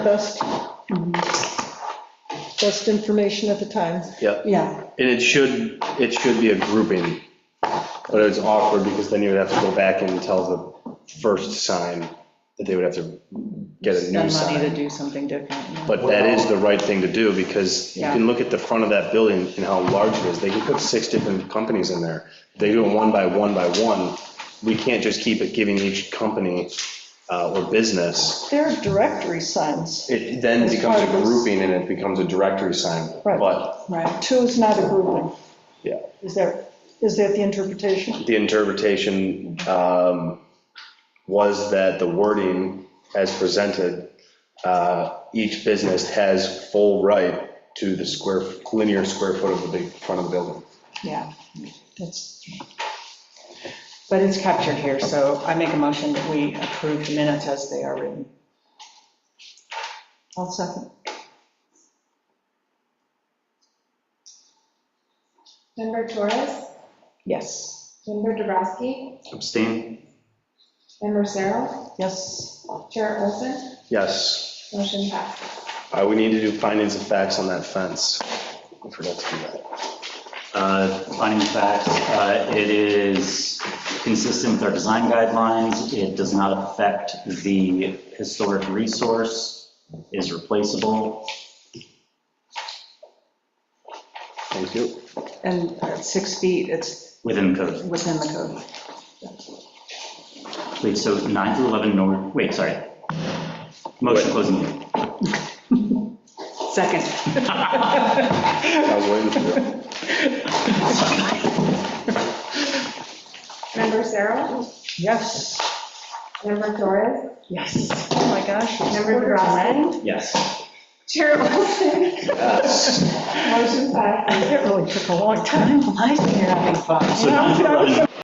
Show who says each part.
Speaker 1: best, best information at the time.
Speaker 2: Yeah,
Speaker 3: Yeah,
Speaker 2: and it should, it should be a grouping, but it's awkward because then you would have to go back and tell the first sign that they would have to get a new
Speaker 3: spend money to
Speaker 2: sign.
Speaker 3: do something different. yeah.
Speaker 2: But that is the right thing to do because you can look at the front of that building and how large it is. They can put six different companies in there. They do it one by one by one. We can't just keep it giving each company uh, or business.
Speaker 1: There are directory signs.
Speaker 2: It then
Speaker 1: It's
Speaker 2: becomes a
Speaker 1: part of this-
Speaker 2: grouping and it becomes a directory sign.
Speaker 1: Right.
Speaker 2: But,
Speaker 3: Right,
Speaker 1: Two is not a grouping.
Speaker 2: yeah.
Speaker 1: Is there, is that the interpretation?
Speaker 2: the interpretation um, was that the wording as presented, uh, each business has full right to the square, linear square foot of the big, front of the building.
Speaker 3: yeah, that's, but it's captured here, so I make a motion that we approve the minutes as they are written.
Speaker 1: I'll second.
Speaker 4: Member Torres?
Speaker 3: Yes,
Speaker 4: Member Dubrasky?
Speaker 2: Abstain?
Speaker 4: Member Cyril?
Speaker 1: Yes.
Speaker 4: Chair Olson?
Speaker 2: Yes.
Speaker 4: Motion passes.
Speaker 2: Uh, We need to do findings of facts on that fence. I forgot to do that.
Speaker 5: Uh, Finding facts, uh, it is consistent with our design guidelines. It does not affect the historic resource, is replaceable.
Speaker 2: Thank you.
Speaker 3: and at six feet, it's
Speaker 5: Within code.
Speaker 3: within the code.
Speaker 5: Wait, so 9 through 11, no, wait, sorry. Motion closing meeting.
Speaker 3: Second,
Speaker 2: I was waiting for it.
Speaker 4: Member Cyril?
Speaker 1: Yes.
Speaker 4: Member Torres?
Speaker 3: yes.
Speaker 1: Oh, my gosh. it's
Speaker 4: Member
Speaker 1: quarter to nine.
Speaker 4: Dubrasky?
Speaker 5: Yes.
Speaker 4: Chair Olson?
Speaker 2: Yes.
Speaker 4: Motion passes.
Speaker 1: It really took a long time.
Speaker 3: I'm liking you're having fun.
Speaker 5: So 9 through 11.